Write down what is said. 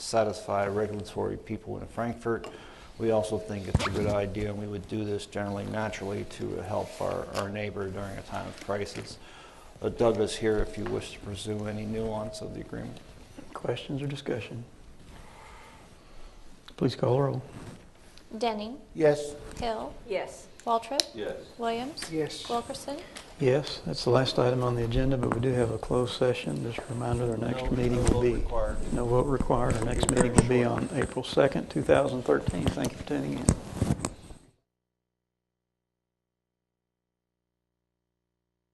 satisfy regulatory people in Frankfurt. We also think it's a good idea, and we would do this generally naturally to help our, our neighbor during a time of crisis. Uh, Doug is here if you wish to pursue any nuance of the agreement. Questions or discussion? Please call the roll. Denning. Yes. Hill. Yes. Waltrip. Yes. Williams. Yes. Wilkerson. Yes, that's the last item on the agenda, but we do have a closed session. Just a reminder, our next meeting will be, no vote required. Our next meeting will be on April 2nd, 2013. Thank you for tuning in.